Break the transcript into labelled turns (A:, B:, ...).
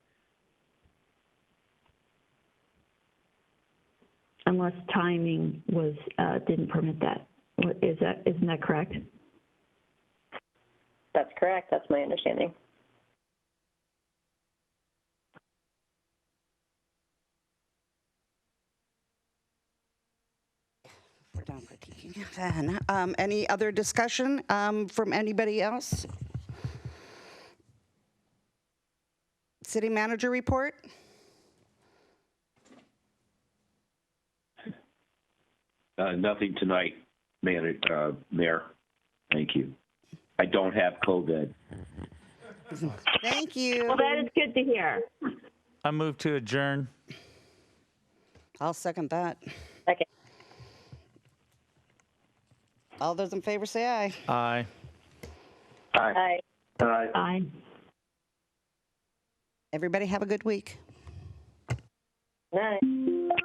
A: unless timing was, uh, didn't permit that. Is that, isn't that correct?
B: That's correct. That's my understanding.
C: We're done critiquing then. Um, Any other discussion um, from anybody else? City manager report?
D: Uh, Nothing tonight, Mayor, uh, Mayor. Thank you. I don't have COVID.
C: Thank you.
A: Well, that is good to hear.
E: I move to adjourn.
C: I'll second that.
B: Second.
C: All those in favor say aye.
E: Aye.
B: Aye.
A: Aye.
C: Everybody have a good week.
B: Nice.